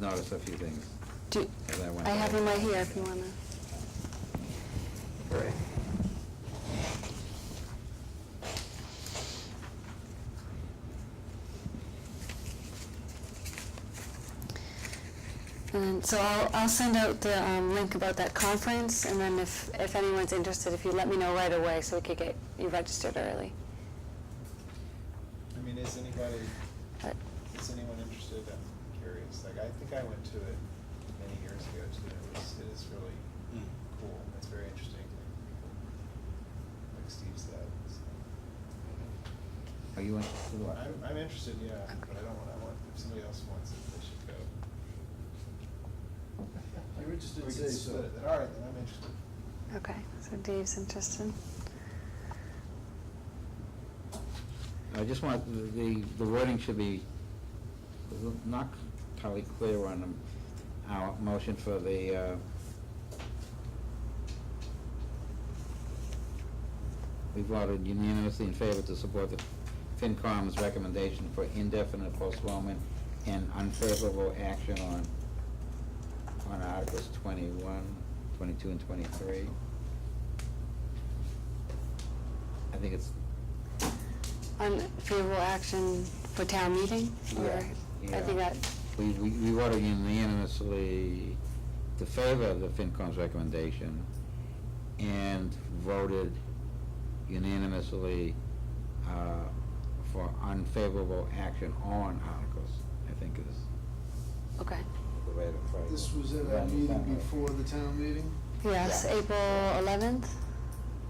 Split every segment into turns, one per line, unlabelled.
noticed a few things.
Do,
As I went
I have
by.
them right here if you wanna.
Great.
And so I'll, I'll send out the um, link about that conference, and then if, if anyone's interested, if you let me know right away, so we could get you registered early.
I mean, is anybody,
But-
is anyone interested? I'm curious. Like, I think I went to it many years ago too. It was, it is really
Mm.
cool. It's very interesting. Like, people, like Steve said. so.
Are you interested in what?
I'm, I'm interested, yeah, but I don't want, I want, if somebody else wants it, they should go.
You were just in
We
say
can
so.
split it. All right, then I'm interested.
Okay, so Dave's interested.
I just want, the, the wording should be not entirely clear on um, our motion for the, uh, we voted unanimously in favor to support the FinCom's recommendation for indefinite postponement and unfavorable action on, on Articles 21, 22, and twenty-three. I think it's
Unfavorable action for town meeting, or,
Yeah,
I think
yeah.
that,
We, we, we voted unanimously to favor the FinCom's recommendation and voted unanimously, uh, for unfavorable action on articles, I think is
okay.
the way to phrase it.
This was at
If I
our meeting
understand right.
before the town meeting?
Yes,
Yeah.
April eleventh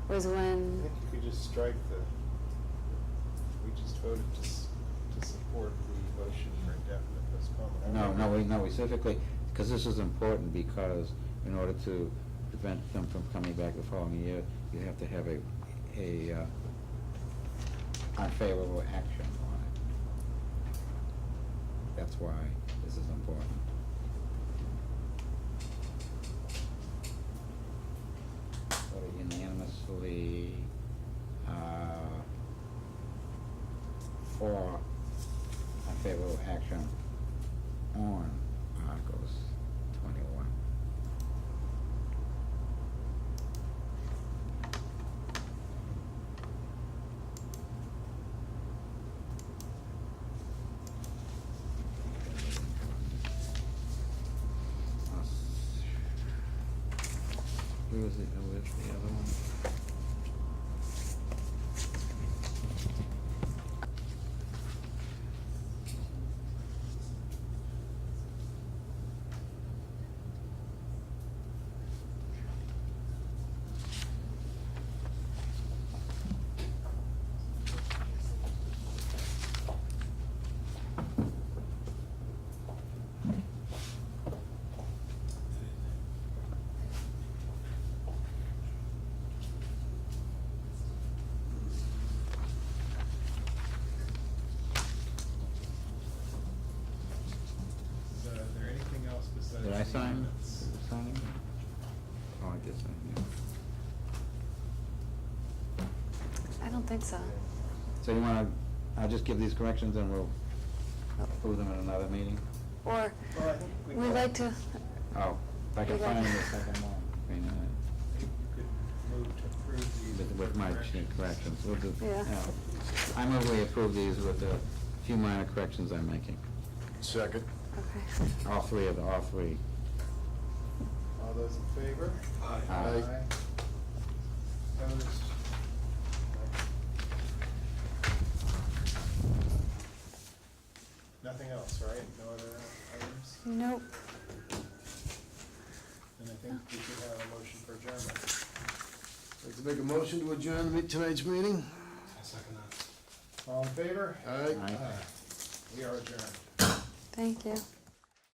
was
I
when,
think you could just strike the, we just voted to, s- to support the motion for indefinite postponement. I
No, no,
remember-
we, no, we specifically, because this is important, because in order to prevent them from coming back the following year, you have to have a, a uh, unfavorable action on it. That's why this is important. Voted unanimously, uh, for unfavorable action on Articles twenty-one. Uh, Where was the, uh, where's the other one?
Is uh, there anything else besides?
Did I
the
sign?
minutes?
Did I sign? Oh, I did sign, yeah.
I don't think so.
So you wanna, I'll just give these corrections and we'll
Oh.
approve them at another meeting?
Or,
Well, I think we
we'd
got-
like to,
Oh, if I can
We got-
find the second one. I mean, uh,
Maybe you could move to approve the.
With, with my corrections, we'll do,
Yeah.
yeah. I move we approve these with the few minor corrections I'm making,
Second.
okay.
all three of the, all three.
All those in favor?
Aye.
Aye.
Opposed? Nothing else, right? No other items?
Nope.
Then I think we should have a motion for adjournment.
Like to make a motion to adjourn the meet- tonight's meeting?
All in favor?
All right.
Aye.
We are adjourned.
Thank you.